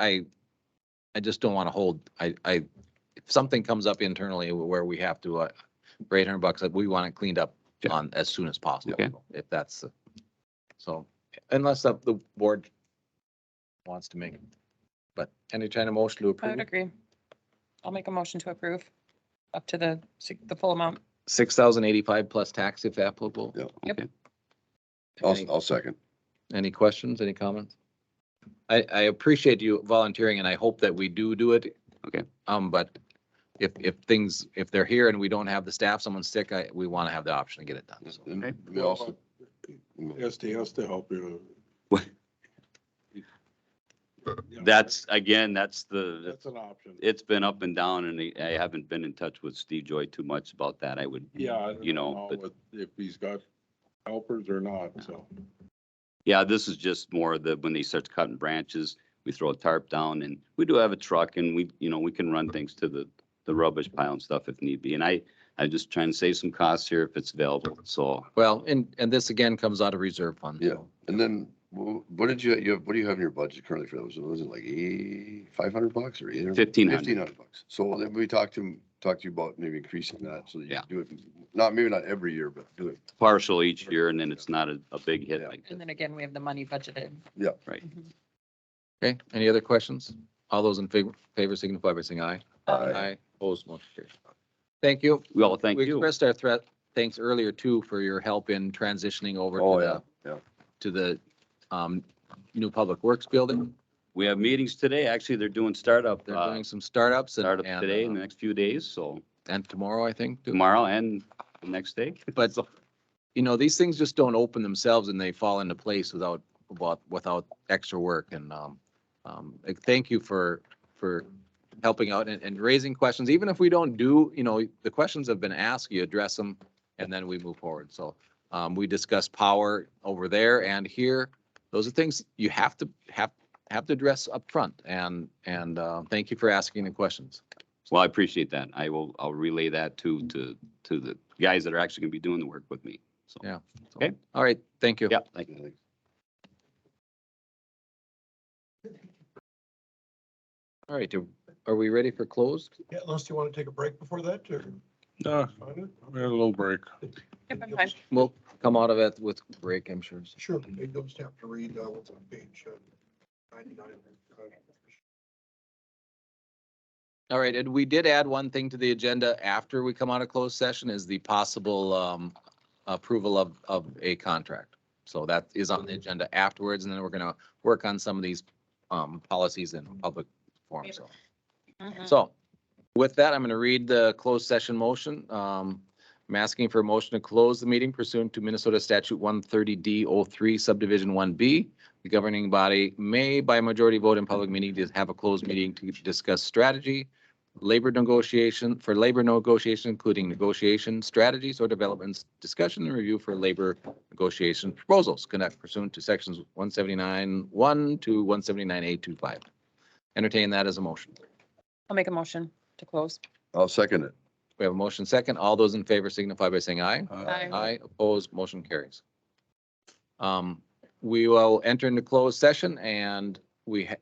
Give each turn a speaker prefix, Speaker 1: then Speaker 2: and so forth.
Speaker 1: I, I just don't want to hold, I, I, if something comes up internally where we have to, uh, for eight hundred bucks, like, we want it cleaned up
Speaker 2: Yeah.
Speaker 1: on as soon as possible,
Speaker 2: Okay.
Speaker 1: if that's, the- so, unless the, the board wants to make, it. but any kind of motion to
Speaker 3: I
Speaker 1: approve?
Speaker 3: would agree. I'll make a motion to approve up to the, sig- the full amount.
Speaker 1: Six thousand eighty-five plus tax if applicable?
Speaker 2: Yeah.
Speaker 3: Yep.
Speaker 2: Okay. I'll,
Speaker 1: Any-
Speaker 2: I'll second.
Speaker 1: Any questions, any comments? I, I appreciate you volunteering and I hope that we do do it.
Speaker 2: Okay.
Speaker 1: Um, but if, if things, if they're here and we don't have the staff, someone's sick, I, we want to have the option to get it done. so.
Speaker 2: Okay.
Speaker 4: And we also asked us to help you.
Speaker 5: What?
Speaker 4: You know,
Speaker 5: That's, again, that's the,
Speaker 4: That's an option.
Speaker 5: it's been up and down and I- I haven't been in touch with Steve Joy too much about that. I would,
Speaker 4: Yeah. I
Speaker 5: you
Speaker 4: don't
Speaker 5: know, but
Speaker 4: what- If he's got helpers or not, so.
Speaker 5: yeah, this is just more the, when they start cutting branches, we throw a tarp down and we do have a truck and we, you know, we can run things to the, the rubbish pile and stuff if need be. And I, I'm just trying to save some costs here if it's available. So
Speaker 1: Well, and, and this again comes out of reserve fund.
Speaker 2: Yeah.
Speaker 1: so.
Speaker 2: And then wh- what did you, you, have- what do you have in your budget currently for those? Was it like eight, five hundred bucks or either?
Speaker 5: fifteen
Speaker 2: Fifteen
Speaker 5: hundred.
Speaker 2: hundred bucks. So then we talked to, him- talked to you about maybe increasing that so that you
Speaker 5: Yeah.
Speaker 2: do it, not, maybe not every year, but do it.
Speaker 5: Partial each year and then it's not a, a big hit like
Speaker 3: And
Speaker 5: that.
Speaker 3: then again, we have the money budgeted.
Speaker 2: Yeah.
Speaker 5: Right.
Speaker 3: Mhm.
Speaker 1: Okay, any other questions? All those in favor, favor signify by saying aye.
Speaker 2: Aye.
Speaker 1: Opposed, motion carries. Thank you.
Speaker 5: Well, thank
Speaker 1: We
Speaker 5: you.
Speaker 1: expressed our threat, thanks earlier too for your help in transitioning over
Speaker 2: Oh,
Speaker 1: to the,
Speaker 2: yeah, yeah.
Speaker 1: to the, um, new public works building.
Speaker 5: We have meetings today. Actually, they're doing startup,
Speaker 1: They're
Speaker 5: uh,
Speaker 1: doing some startups and.
Speaker 5: startup
Speaker 1: and,
Speaker 5: today in
Speaker 1: uh,
Speaker 5: the next few days. So
Speaker 1: and tomorrow, I think. too.
Speaker 5: tomorrow and the next day.
Speaker 1: But, you know, these things just don't open themselves and they fall into place without, without, without extra work and, um, um, like, thank you for, for helping out and, and raising questions. Even if we don't do, you know, the questions have been asked, you address them and then we move forward. So, um, we discussed power over there and here. Those are things you have to, have, have to address upfront and, and, uh, thank you for asking the questions.
Speaker 5: Well, I appreciate that. I will, I'll relay that to, to, to the guys that are actually gonna be doing the work with me. So,
Speaker 1: Yeah. So,
Speaker 5: Okay.
Speaker 1: All right, thank you.
Speaker 5: yeah, thank you.
Speaker 1: All right, do- are we ready for closed?
Speaker 6: Yeah, unless you want to take a break before that, or?
Speaker 4: Uh, we had a little break.
Speaker 3: Yep, I'm fine.
Speaker 1: We'll come out of it with break, I'm sure.
Speaker 6: Sure, you just have to read, uh, what's on page uh, ninety-nine.
Speaker 1: All right, and we did add one thing to the agenda after we come out of closed session is the possible um, approval of, of a contract. So that is on the agenda afterwards, and then we're gonna work on some of these um, policies in public forum, so.
Speaker 3: Mhm.
Speaker 1: So with that, I'm going to read the closed session motion. Um, I'm asking for a motion to close the meeting pursuant to Minnesota statute one thirty D 3 subdivision one B. The governing body may by majority vote in public meeting to have a closed meeting to discuss strategy, labor negotiation, for labor negotiation, including negotiation strategies or developments, discussion and review for labor negotiation proposals, conduct pursuant to sections one seventy-nine one to one seventy-nine eight two five. Entertain that as a motion.
Speaker 3: I'll make a motion to close.
Speaker 2: I'll second it.
Speaker 1: We have a motion second. All those in favor signify by saying aye.
Speaker 3: Aye.
Speaker 1: Aye, opposed, motion carries. Um, we will enter into closed session and we ha-